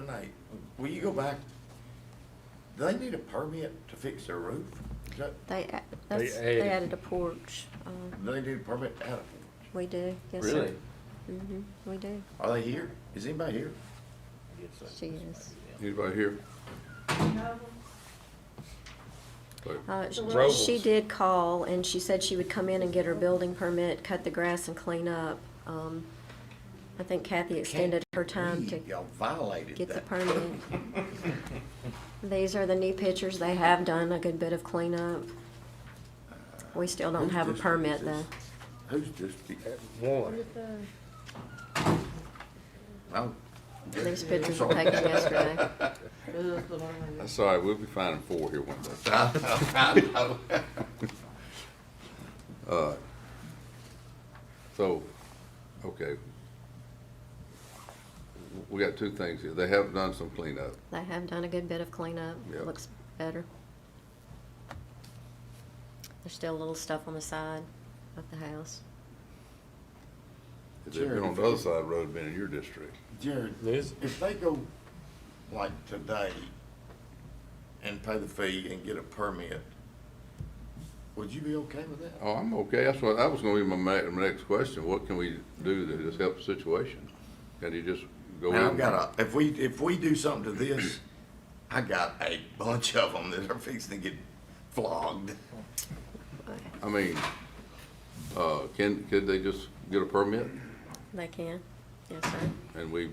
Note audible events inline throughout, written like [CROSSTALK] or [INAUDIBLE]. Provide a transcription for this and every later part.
Nate, will you go back? Do they need a permit to fix their roof? Is that, They, a- that's, added- they added a porch, um, do they need a permit to add a we do, yes, sir. Really? hmm we do, porch? Are they here? Is anybody here? she is. Anybody here? Uh, sh- Robles. she did call and she said she would come in and get her building permit, cut the grass and clean up. Um, I think Kathy extended her time to Read, Y'all violated get the that. [LAUGHS] permit. These are the new pictures, they have done a good bit of cleanup. We still don't Whose have a district is permit though. this? Who's district? One. Oh, These pictures were [LAUGHS] taken yesterday. That's all right, we'll be finding four here one day. I [LAUGHS] know. So, okay. We got two things here. They have done some cleanup. They have done a good bit of cleanup, Yep. looks better. There's still a little stuff on the side of the house. They've been on the other side of the road, been in your district. Jared, Liz? if they go like today and pay the fee and get a permit, would you be okay with that? Oh, I'm okay. That's what, that was gonna be my ma- my next question. What can we do to just help the situation? Can you just go in? Now, I've got a, if we, if we do something to this, I got a bunch of them that are fixing to get flogged. I mean, uh, can, could they just get a permit They can, yes, sir. and we,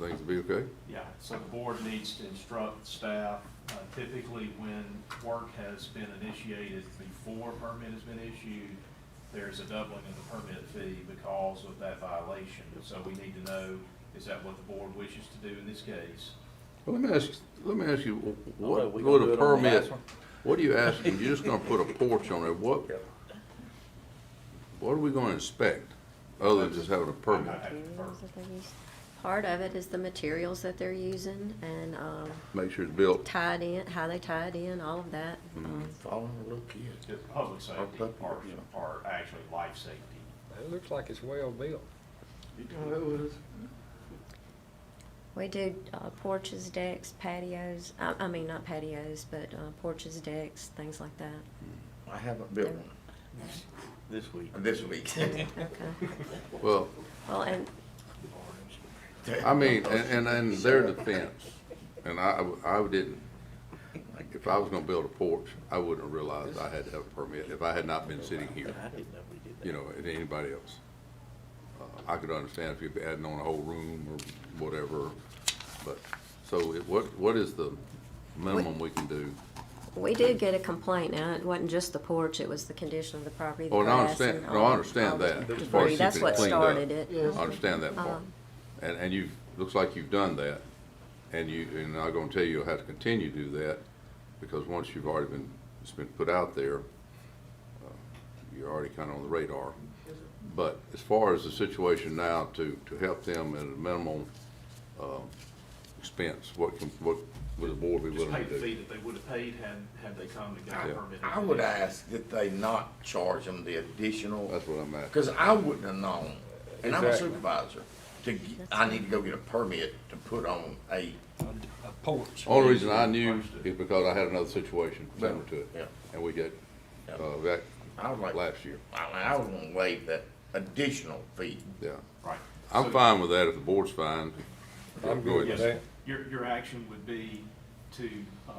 things will be okay? Yeah, so the board needs to instruct staff, uh, typically when work has been initiated before a permit has been issued, there's a doubling of the permit fee because of that violation. So we need to know, is that what the board wishes to do in this case? Well, let me ask, let me ask you, Although what Oh, we would gonna do a it on the permit, last one? what are you asking? You're just gonna put a porch on it, what? What are we gonna inspect, other than just having a permit? I have to defer. Materials that they use. Part of it is the materials that they're using and, um, Make sure it's built, tied in, how they tie it in, all of that. Um, Following a little kid. The public safety public, or, yeah. or actually life safety. It looks like it's well built. We do uh, porches, decks, patios, I, I mean, not patios, but uh, porches, decks, things like that. I haven't built one This week. this week. Okay. well, Well, and I mean, and, and in their defense, and I, I didn't, if I was gonna build a porch, I wouldn't have realized I had to have a permit if I had not been sitting here. I didn't know we did that. you know, than anybody else. Uh, I could understand if you're adding on a whole room or whatever, but, so it- what, what is the minimum we can do? we did get a complaint. Now, it wasn't just the porch, it was the condition of the property, the Oh, and I grass. understand, and no, all- I understand all the that. as far as Debris, that's keeping it what cleaned up. started it. I understand that part. Um, And, and you've, looks like you've done that, and you, and I'm gonna tell you, you'll have to continue to do that, because once you've already been, it's been put out there, uh, you're already kinda on the radar. But as far as the situation now, to, to help them at a minimal, um, expense, what can, what would the board be Just willing pay to the fee do? that they would have paid had, had they come and got Yeah. a permit. I would ask that they not charge them the additional, That's what I'm at. because I wouldn't have known, and I'm a Exactly. supervisor, to, g- I need to go get a permit to put on a, A a porch. Only reason I knew is because I had another situation similar to Yeah. it, and we got, Yeah. uh, that I would like, last year, I, I would want to waive that additional fee. yeah. Right. I'm So- fine with that if the board's fine. I'm Go good with ahead. that. Your, your action would be to, uh,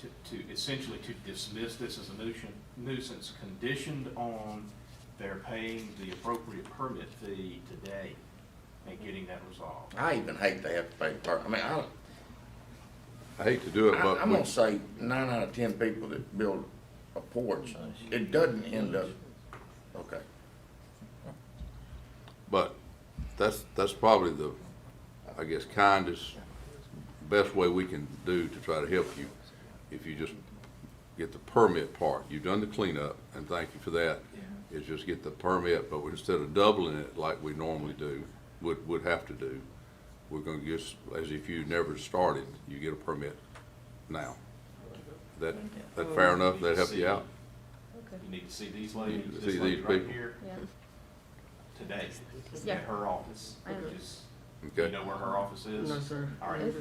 to, to essentially to dismiss this as a nuisance, nuisance conditioned on their paying the appropriate permit fee today and getting that resolved. I even hate to have to pay per, I mean, I, I hate to do it, I- but I'm we- gonna say nine out of ten people that build a porch, it doesn't end up, okay. But that's, that's probably the, I guess, kindest, best way we can do to try to help you. If you just get the permit part, you've done the cleanup, and thank you for that. Is just get the permit, but instead of doubling it like we normally do, would, would have to do, we're gonna just, as if you never started, you get a permit now. That, that fair enough? That help you out? You need to see these You ladies, need to this see lady these right people. here, Yeah. today, Yeah. at her office, I know. which is, you Okay. know where her office is? All right,